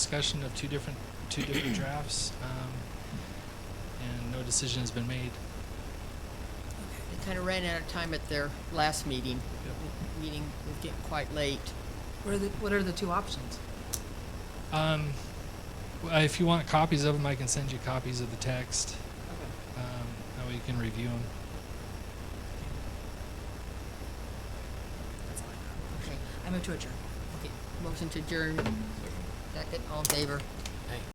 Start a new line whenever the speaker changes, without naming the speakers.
discussion of two different, two different drafts, um, and no decision has been made.
They kind of ran out of time at their last meeting. The Meeting was getting quite late.
What are the, what are the two options?
Um, well, if you want copies of them, I can send you copies of the text, um, that way you can review them.
That's all I got. Okay, I move to adjourn.
Okay, motion to adjourn. Second, all in favor?